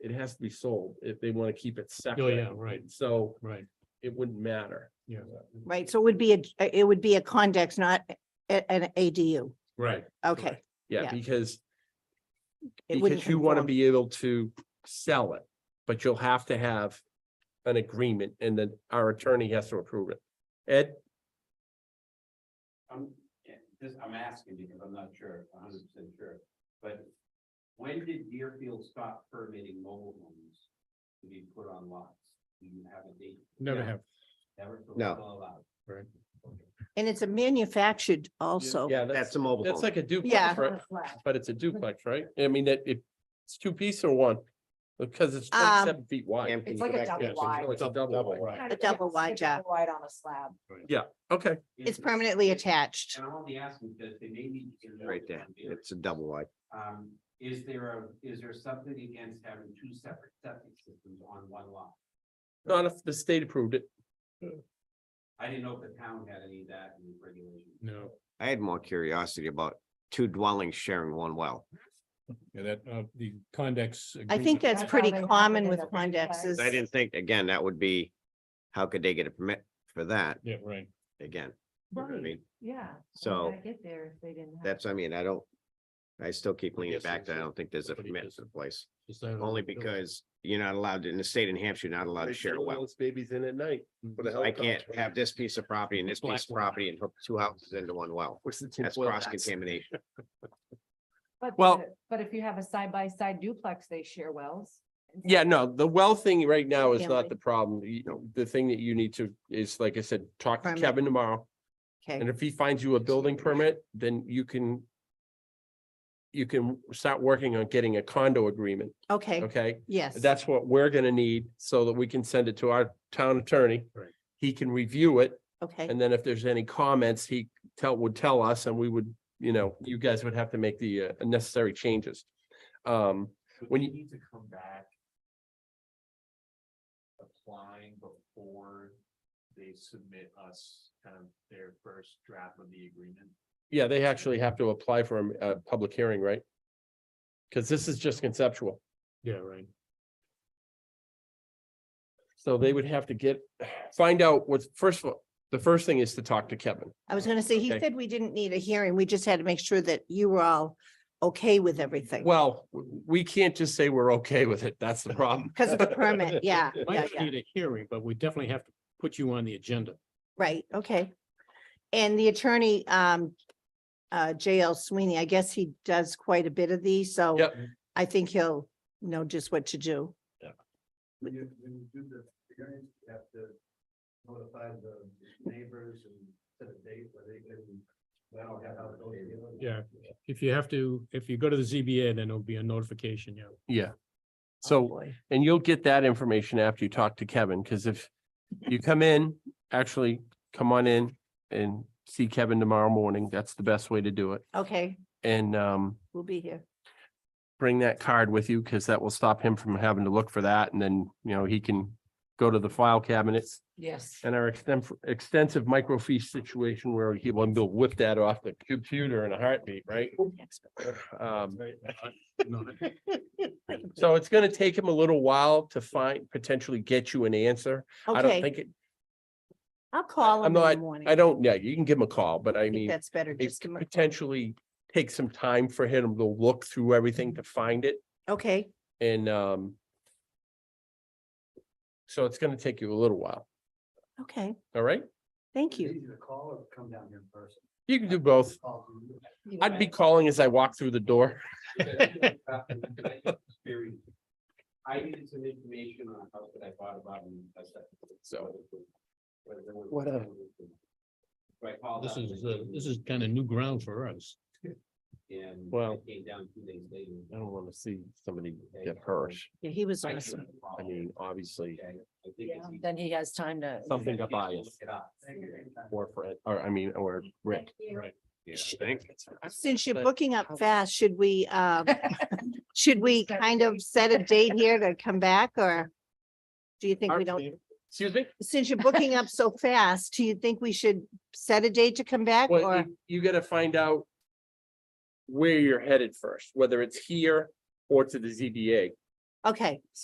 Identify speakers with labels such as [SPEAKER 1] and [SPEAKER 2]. [SPEAKER 1] it has to be sold if they want to keep it separate.
[SPEAKER 2] Oh, yeah, right,
[SPEAKER 1] So
[SPEAKER 2] right,
[SPEAKER 1] it wouldn't matter.
[SPEAKER 2] yeah,
[SPEAKER 3] Right, so it would be a, it would be a condex, not a- an ADU.
[SPEAKER 2] right.
[SPEAKER 3] Okay.
[SPEAKER 2] Correct.
[SPEAKER 1] Yeah,
[SPEAKER 3] Yeah.
[SPEAKER 1] because,
[SPEAKER 3] it wouldn't
[SPEAKER 1] because you want to
[SPEAKER 3] conform.
[SPEAKER 1] be able to sell it, but you'll have to have an agreement and then our attorney has to approve it. Ed,
[SPEAKER 4] I'm, yeah, this, I'm asking because I'm not sure, hundred percent sure, but when did Deerfield stop permitting mobile homes to be put on lots? Do you have a date?
[SPEAKER 2] Never have,
[SPEAKER 4] Never, so it's
[SPEAKER 5] No.
[SPEAKER 4] all allowed.
[SPEAKER 2] right.
[SPEAKER 3] And it's a manufactured also.
[SPEAKER 1] yeah, that's,
[SPEAKER 5] Oh, That's a mobile
[SPEAKER 1] that's
[SPEAKER 5] home.
[SPEAKER 1] like a
[SPEAKER 3] Yeah. Mm-hmm.
[SPEAKER 1] duplex, right? But it's a duplex, right? I mean, that it, it's two piece or one? Because it's
[SPEAKER 3] Um,
[SPEAKER 1] twenty-seven feet wide.
[SPEAKER 5] And can
[SPEAKER 6] It's
[SPEAKER 5] you
[SPEAKER 6] like
[SPEAKER 5] go
[SPEAKER 6] a
[SPEAKER 5] back
[SPEAKER 6] double
[SPEAKER 5] there?
[SPEAKER 1] so
[SPEAKER 6] wide.
[SPEAKER 1] it's a double
[SPEAKER 5] Double
[SPEAKER 1] wide.
[SPEAKER 5] wide.
[SPEAKER 6] Kind
[SPEAKER 3] A
[SPEAKER 6] of like
[SPEAKER 3] double wide,
[SPEAKER 6] stick it
[SPEAKER 3] yeah.
[SPEAKER 6] Wide on a slab.
[SPEAKER 1] Okay,
[SPEAKER 3] It's permanently attached.
[SPEAKER 4] And I'm only asking because they may need to. know
[SPEAKER 5] Right
[SPEAKER 4] this
[SPEAKER 5] there.
[SPEAKER 4] on Deerfield.
[SPEAKER 5] It's a double wide.
[SPEAKER 4] Um, is there a, is there something against having two separate septic systems on one lot?
[SPEAKER 1] not if the state approved it.
[SPEAKER 4] I didn't know if the town had any of that in the regulations.
[SPEAKER 2] No,
[SPEAKER 5] I had more curiosity about two dwellings sharing one well.
[SPEAKER 2] yeah, that, uh, the condex.
[SPEAKER 3] I think
[SPEAKER 2] agreement-
[SPEAKER 3] that's
[SPEAKER 6] That's
[SPEAKER 3] pretty
[SPEAKER 6] how they have it
[SPEAKER 3] common
[SPEAKER 6] in
[SPEAKER 3] with
[SPEAKER 6] the regs.
[SPEAKER 3] condexes.
[SPEAKER 5] I didn't think, again, that would be, how could they get a permit for that
[SPEAKER 2] Yeah, right.
[SPEAKER 5] again? You know what I mean?
[SPEAKER 6] Yeah. How would
[SPEAKER 5] So-
[SPEAKER 6] that Get there if they didn't. have-
[SPEAKER 5] That's, I mean, I don't, I still keep leaning
[SPEAKER 2] Yes,
[SPEAKER 5] back that I
[SPEAKER 2] yes.
[SPEAKER 5] don't think there's a
[SPEAKER 2] Nobody
[SPEAKER 5] permit
[SPEAKER 2] does
[SPEAKER 5] in
[SPEAKER 2] it.
[SPEAKER 5] place,
[SPEAKER 2] Is that on
[SPEAKER 5] only
[SPEAKER 2] the bill?
[SPEAKER 5] because you're not allowed, to- in the state of New Hampshire, you're not allowed to
[SPEAKER 1] They
[SPEAKER 5] share a
[SPEAKER 1] throw
[SPEAKER 5] well.
[SPEAKER 1] those Babies in at night.
[SPEAKER 5] I can't have this piece of property and this
[SPEAKER 2] Black
[SPEAKER 5] piece of
[SPEAKER 2] water.
[SPEAKER 5] property and hook two houses into one well.
[SPEAKER 1] What's the
[SPEAKER 5] That's
[SPEAKER 1] tinfoil
[SPEAKER 5] cross
[SPEAKER 1] hats?
[SPEAKER 5] contamination.
[SPEAKER 6] But,
[SPEAKER 1] Well-
[SPEAKER 6] the- but if you have a side by side duplex, they share wells.
[SPEAKER 1] Yeah, no, the well thing right now is
[SPEAKER 3] Family.
[SPEAKER 1] not the problem. You know, the thing that you need to is, like I said, talk to
[SPEAKER 3] Permit.
[SPEAKER 1] Kevin tomorrow.
[SPEAKER 3] Okay,
[SPEAKER 1] And if he finds you a building permit, then you can you can start working on getting a condo agreement,
[SPEAKER 3] okay,
[SPEAKER 1] okay?
[SPEAKER 3] yes.
[SPEAKER 1] That's what we're gonna need so that we can send it to our town attorney.
[SPEAKER 2] Right.
[SPEAKER 1] He can review it
[SPEAKER 3] Okay,
[SPEAKER 1] and then if there's any comments, he tell, would tell us and we would, you know, you guys would have to make the uh, necessary changes. Um,
[SPEAKER 4] Would
[SPEAKER 1] When
[SPEAKER 4] we
[SPEAKER 1] you-
[SPEAKER 4] need to come back? Applying before they submit us kind of their first draft of the agreement?
[SPEAKER 1] Yeah, they actually have to apply for a, a public hearing, right? Because this is just conceptual,
[SPEAKER 2] Yeah, right.
[SPEAKER 1] so they would have to get, find out what's, first of all, the first thing is to talk to Kevin.
[SPEAKER 3] I was gonna say, he
[SPEAKER 1] Okay.
[SPEAKER 3] said we didn't need a hearing. We just had to make sure that you were all okay with everything.
[SPEAKER 1] Well, w- we can't just say we're okay with it, that's the problem.
[SPEAKER 3] Because of the permit, yeah, yeah,
[SPEAKER 2] Might
[SPEAKER 3] yeah,
[SPEAKER 2] need a hearing, but we definitely have to put you on the agenda.
[SPEAKER 3] right, okay. And the attorney, um, uh, JL Sweeney, I guess he does quite a bit of these, so
[SPEAKER 1] Yep.
[SPEAKER 3] I think he'll know just what to do. Oh,
[SPEAKER 4] When you, when you do the hearing, you have to notify the neighbors and set a date where they can. I don't have how it goes, you know?
[SPEAKER 2] Yeah. If you have to, if you go to the ZBA, then it'll be a notification, yeah.
[SPEAKER 1] Yeah. So, and you'll get that information after you talk to Kevin, because if you come in, actually come on in and see Kevin tomorrow morning, that's the best way to do it.
[SPEAKER 3] Okay,
[SPEAKER 1] And, um,
[SPEAKER 3] we'll be here.
[SPEAKER 1] bring that card with you because that will stop him from having to look for that and then, you know, he can go to the file cabinets
[SPEAKER 6] Yes.
[SPEAKER 1] and our extensive, extensive microfiche situation where he will go whip that off the computer in a heartbeat, right? Um,
[SPEAKER 2] No,
[SPEAKER 1] so it's gonna take him a little while to find, potentially get you an answer. I don't
[SPEAKER 3] Okay,
[SPEAKER 1] think, it.
[SPEAKER 3] I'll call
[SPEAKER 1] I'm
[SPEAKER 3] him in the
[SPEAKER 1] not-
[SPEAKER 3] morning.
[SPEAKER 1] I don't, yeah, you can give him a call, but I
[SPEAKER 3] I think
[SPEAKER 1] mean,
[SPEAKER 3] that's better,
[SPEAKER 1] it
[SPEAKER 3] just, to
[SPEAKER 1] could
[SPEAKER 3] mo-
[SPEAKER 1] potentially take some time for him to look through everything to find it.
[SPEAKER 3] okay,
[SPEAKER 1] And um. So it's gonna take you a little while,
[SPEAKER 3] okay,
[SPEAKER 1] all right?
[SPEAKER 3] thank
[SPEAKER 4] Is it
[SPEAKER 3] you.
[SPEAKER 4] Easy to call or come down here in person.
[SPEAKER 1] You can do both.
[SPEAKER 4] Call you.
[SPEAKER 1] I'd be calling as I walk through the door.
[SPEAKER 4] I needed some information on a house that I bought about in.
[SPEAKER 1] So.
[SPEAKER 4] What? Right, Paul.
[SPEAKER 2] This is, uh, this is kind of new ground for us.
[SPEAKER 4] And I
[SPEAKER 1] Well-
[SPEAKER 4] came down two days later.
[SPEAKER 1] I don't wanna see somebody
[SPEAKER 4] get hurt.
[SPEAKER 3] Yeah, he was
[SPEAKER 1] I
[SPEAKER 3] awesome.
[SPEAKER 1] I mean, obviously,
[SPEAKER 4] Okay, I think it's easy.
[SPEAKER 6] Then he has time to.
[SPEAKER 1] something got
[SPEAKER 4] Yeah, look
[SPEAKER 1] biased
[SPEAKER 4] it up.
[SPEAKER 1] or Fred, or I mean, or Rick.
[SPEAKER 2] Right.
[SPEAKER 5] Yeah,
[SPEAKER 3] Sh-
[SPEAKER 5] thank-
[SPEAKER 3] Since you're
[SPEAKER 1] But-
[SPEAKER 3] booking up fast, should we, um, should we kind of set a date here to come back or? Do you think we don't,
[SPEAKER 1] Excuse me?
[SPEAKER 3] since you're booking up so fast, do you think we should set a date to come back
[SPEAKER 1] Well,
[SPEAKER 3] or?
[SPEAKER 1] you- you gotta find out. Where you're headed first, whether it's here or to the ZBA.
[SPEAKER 3] Okay,